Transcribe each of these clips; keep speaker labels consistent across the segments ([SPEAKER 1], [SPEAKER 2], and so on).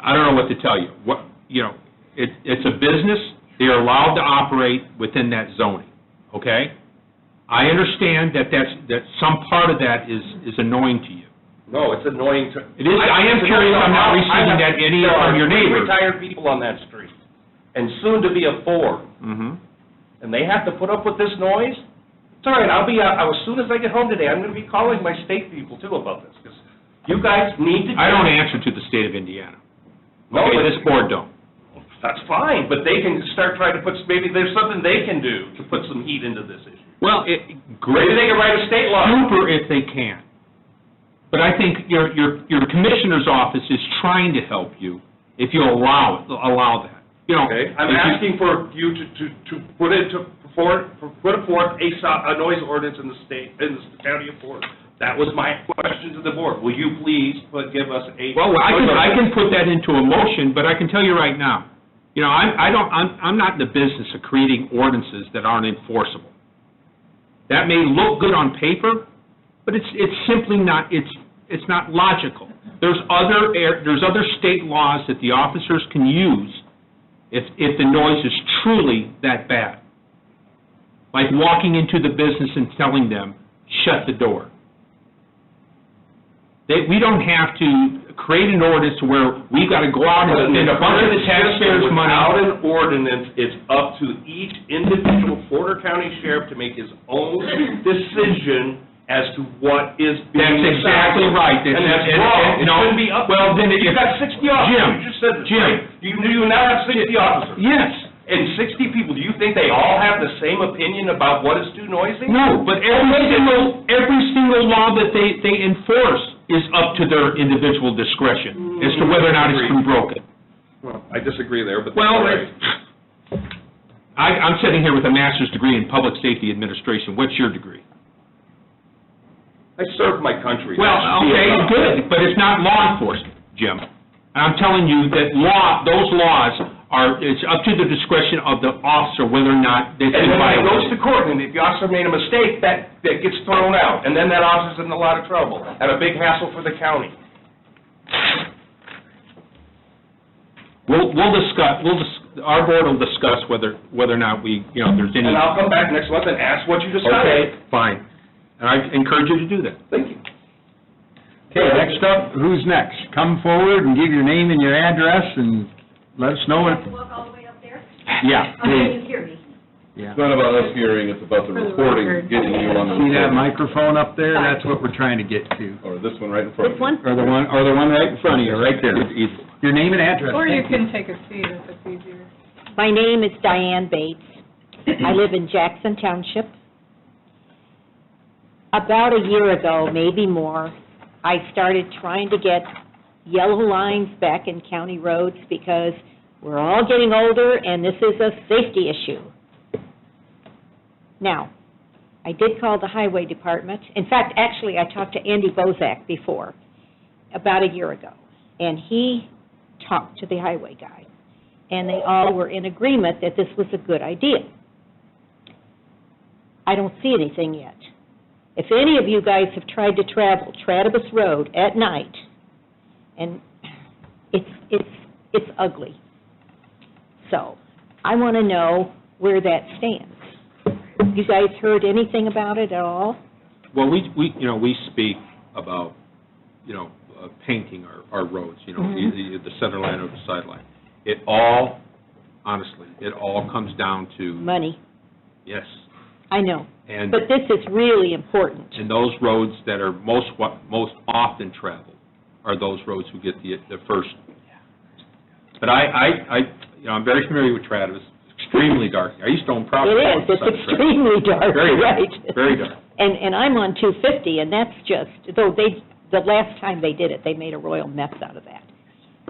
[SPEAKER 1] I don't know what to tell you. What, you know, it, it's a business, they're allowed to operate within that zoning, okay? I understand that that's, that some part of that is, is annoying to you.
[SPEAKER 2] No, it's annoying to.
[SPEAKER 1] It is- I am curious I'm not receiving that any from your
[SPEAKER 2] There are
[SPEAKER 1] neighbors.
[SPEAKER 2] three retired people on that street, and soon to be a four,
[SPEAKER 1] Mm-hmm.
[SPEAKER 2] and they have to put up with this noise? It's all right, I'll be, out- as soon as I get home today, I'm gonna be calling my state people too about this, because you guys need to.
[SPEAKER 1] I don't answer to the state of Indiana.
[SPEAKER 2] No,
[SPEAKER 1] Okay,
[SPEAKER 2] but-
[SPEAKER 1] this board don't.
[SPEAKER 2] That's fine, but they can start trying to put, maybe there's something they can do to put some heat into this issue.
[SPEAKER 1] Well, it,
[SPEAKER 2] Maybe
[SPEAKER 1] great,
[SPEAKER 2] they can write a state law.
[SPEAKER 1] super if they can. But I think your, your, your commissioner's office is trying to help you if you allow it, allow that, you know.
[SPEAKER 2] Okay, I'm
[SPEAKER 1] if you-
[SPEAKER 2] asking for you to, to, to put it, to, for, for- put forth a, so- a noise ordinance in the state, in the county of Fort. That was my question to the board. Will you please put, give us a?
[SPEAKER 1] Well, I can, I can put that into a motion, but I can tell you right now, you know, I'm, I don't, I'm, I'm not in the business of creating ordinances that aren't enforceable. That may look good on paper, but it's, it's simply not, it's, it's not logical. There's other, air- there's other state laws that the officers can use if, if the noise is truly that bad. Like walking into the business and telling them, shut the door. They, we don't have to create an ordinance to where we've got to go out and spend a bunch of the taxpayers' money.
[SPEAKER 2] Without an ordinance, it's up to each individual Porter County sheriff to make his own decision as to what is being.
[SPEAKER 1] That's exactly
[SPEAKER 2] decided.
[SPEAKER 1] right.
[SPEAKER 2] And that's
[SPEAKER 1] and-
[SPEAKER 2] wrong.
[SPEAKER 1] and-
[SPEAKER 2] It
[SPEAKER 1] no.
[SPEAKER 2] shouldn't be up.
[SPEAKER 1] Well, then it-
[SPEAKER 2] You've got sixty officers.
[SPEAKER 1] Jim,
[SPEAKER 2] You just said this,
[SPEAKER 1] Jim.
[SPEAKER 2] right? You, you now have sixty officers.
[SPEAKER 1] Yes.
[SPEAKER 2] And sixty people, do you think they all have the same opinion about what is too noisy?
[SPEAKER 1] No, but every single, every single law that they, they enforce is up to their individual discretion as to whether or not it's been broken.
[SPEAKER 2] Well, I disagree there, but. that's
[SPEAKER 1] Well,
[SPEAKER 2] all right.
[SPEAKER 1] I, I'm sitting here with a master's degree in public safety administration. What's your degree?
[SPEAKER 2] I served my country.
[SPEAKER 1] Well,
[SPEAKER 2] That should be
[SPEAKER 1] okay,
[SPEAKER 2] enough.
[SPEAKER 1] good, but it's not law enforcement, Jim. And I'm telling you that law, those laws are, it's up to the discretion of the officer whether or not they've been
[SPEAKER 2] And then when it
[SPEAKER 1] violated.
[SPEAKER 2] goes to court, and if the officer made a mistake, that, that gets thrown out, and then that officer's in a lot of trouble, and a big hassle for the county.
[SPEAKER 1] We'll, we'll discuss, we'll, dis- our board will discuss whether, whether or not we, you know, if there's any...
[SPEAKER 2] And I'll come back next month and ask what you
[SPEAKER 1] Okay,
[SPEAKER 2] decided.
[SPEAKER 1] fine. And I encourage you to do that.
[SPEAKER 2] Thank you.
[SPEAKER 3] Okay, next up, who's next? Come forward and give your name and your address and let us know
[SPEAKER 4] Have
[SPEAKER 3] what,
[SPEAKER 4] to walk all the way up there?
[SPEAKER 3] yeah,
[SPEAKER 4] Okay, you hear me.
[SPEAKER 3] yeah.
[SPEAKER 5] It's not about us hearing, it's about the
[SPEAKER 4] For the
[SPEAKER 5] recording,
[SPEAKER 4] record.
[SPEAKER 5] getting you on the
[SPEAKER 3] See
[SPEAKER 5] recording.
[SPEAKER 3] that microphone up there? That's what we're trying to get to.
[SPEAKER 5] Or this one right in front of you.
[SPEAKER 3] Or the one, or the one right in front of you, right there. Your name and address.
[SPEAKER 6] Or you
[SPEAKER 3] thank
[SPEAKER 6] can take a seat if it's easier.
[SPEAKER 7] My name is Diane Bates. I live in Jackson Township. About a year ago, maybe more, I started trying to get yellow lines back in county roads because we're all getting older and this is a safety issue. Now, I did call the highway department. In fact, actually, I talked to Andy Bozak before, about a year ago. And he talked to the highway guy and they all were in agreement that this was a good idea. I don't see anything yet. If any of you guys have tried to travel Tratibus Road at night, and it's, it's, it's ugly. So, I want to know where that stands. You guys heard anything about it at all?
[SPEAKER 1] Well, we, we, you know, we speak about, you know, uh, painting our, our roads, you know,
[SPEAKER 6] Mm-hmm.
[SPEAKER 1] the, the center line or the sideline. It all, honestly, it all comes down to,
[SPEAKER 7] Money,
[SPEAKER 1] yes,
[SPEAKER 7] I know,
[SPEAKER 1] and,
[SPEAKER 7] but this is really important.
[SPEAKER 1] and those roads that are most, wa- most often traveled are those roads who get the, the first. But I, I, I, you know, I'm very familiar with Travis, extremely dark. I used to own
[SPEAKER 7] It
[SPEAKER 1] property.
[SPEAKER 7] is,
[SPEAKER 1] on
[SPEAKER 7] it's
[SPEAKER 1] South Travis.
[SPEAKER 7] extremely dark,
[SPEAKER 1] Very dark,
[SPEAKER 7] right?
[SPEAKER 1] very dark.
[SPEAKER 7] And, and I'm on 250, and that's just, though they, the last time they did it, they made a royal mess out of that.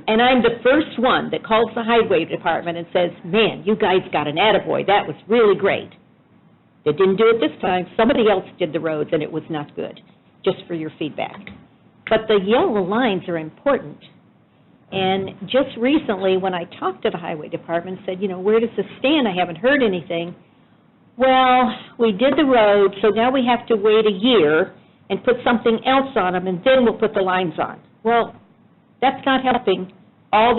[SPEAKER 7] And I'm the first one that calls the highway department and says, "Man, you guys got an attaboy, that was really great." They didn't do it this time, somebody else did the roads, and it was not good, just for your feedback. But the yellow lines are important. And just recently, when I talked to the highway department, said, you know, where does this stand? I haven't heard anything. Well, we did the road, so now we have to wait a year and put something else on them, and then we'll put the lines on. Well, that's not helping all